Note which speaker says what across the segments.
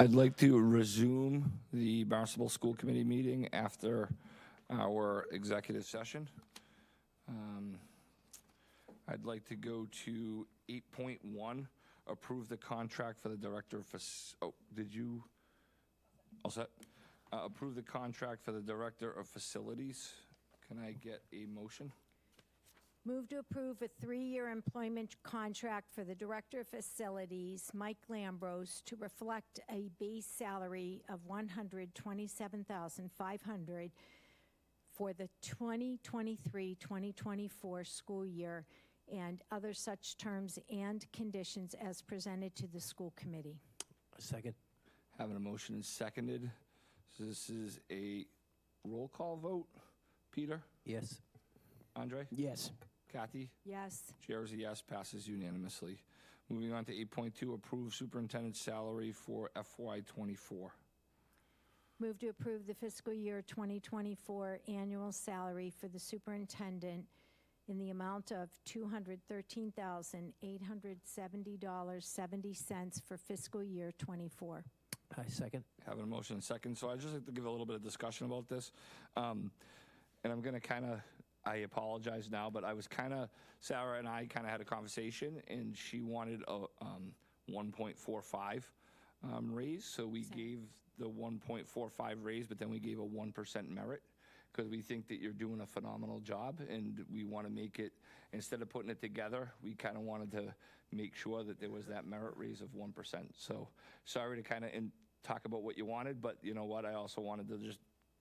Speaker 1: I'd like to resume the Barnstable School Committee meeting after our executive session. Um, I'd like to go to 8.1, approve the contract for the Director of, Fac- oh, did you? All set? Uh, Approve the contract for the Director of Facilities. Can I get a motion?
Speaker 2: Move to approve a three-year employment contract for the Director of Facilities, Mike Lambros, to reflect a base salary of $127,500 for the 2023-2024 school year and other such terms and conditions as presented to the school committee.
Speaker 3: Second.
Speaker 1: Having a motion and seconded. So This is a roll call vote. Peter?
Speaker 3: Yes.
Speaker 1: Andre?
Speaker 3: Yes.
Speaker 1: Kathy?
Speaker 2: Yes.
Speaker 1: Chair is a yes, passes unanimously. Moving on to 8.2, approve superintendent's salary for FY '24.
Speaker 2: Move to approve the fiscal year 2024 annual salary for the superintendent in the amount of $213,870.70 for fiscal year '24.
Speaker 3: I second.
Speaker 1: Having a motion and second, so I'd just like to give a little bit of discussion about this. Um, And I'm going to kind of, I apologize now, but I was kind of, Sarah and I kind of had a conversation, and she wanted a um, 1.45 um, raise, so we gave the 1.45 raise, but then we gave a 1% merit, because we think that you're doing a phenomenal job, and we want to make it, instead of putting it together, we kind of wanted to make sure that there was that merit raise of 1%. So, sorry to kind of talk about what you wanted, but you know what, I also wanted to just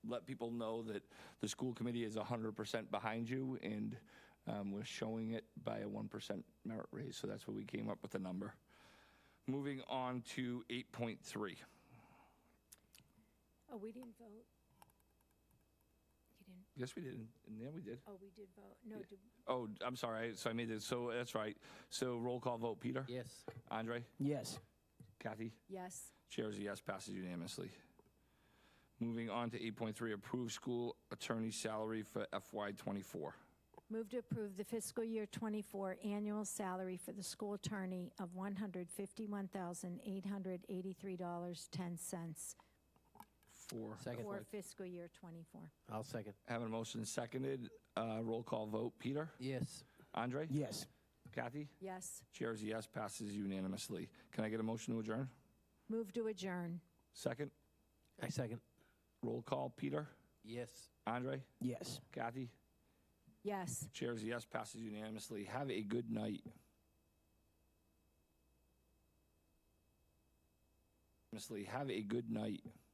Speaker 1: let people know that the school committee is 100% behind you, and um, we're showing it by a 1% merit raise, so that's what we came up with the number. Moving on to 8.3.
Speaker 2: Oh, we didn't vote? You didn't,
Speaker 1: Yes, we did, and yeah, we did.
Speaker 2: oh, we did vote. No, did-
Speaker 1: Oh, I'm sorry, so I made it, so that's right. So roll call vote, Peter?
Speaker 3: Yes.
Speaker 1: Andre?
Speaker 3: Yes.
Speaker 1: Kathy?
Speaker 2: yes.
Speaker 1: Chair is a yes, passes unanimously. Moving on to 8.3, approve school attorney salary for FY '24.
Speaker 2: Move to approve the fiscal year '24 annual salary for the school attorney of $151,883.10
Speaker 1: Four.
Speaker 3: Second.
Speaker 2: for fiscal year '24.
Speaker 3: I'll second.
Speaker 1: Having a motion seconded, uh, roll call vote, Peter?
Speaker 3: Yes.
Speaker 1: Andre?
Speaker 3: Yes.
Speaker 1: Kathy?
Speaker 2: Yes.
Speaker 1: Chair is a yes, passes unanimously. Can I get a motion to adjourn?
Speaker 2: Move to adjourn.
Speaker 1: Second,
Speaker 3: I second.
Speaker 1: roll call, Peter,
Speaker 3: Yes.
Speaker 1: Andre,
Speaker 3: Yes.
Speaker 1: Kathy.
Speaker 2: Yes.
Speaker 1: Chair is a yes, passes unanimously. Have a good night. Unanimously, Have a good night.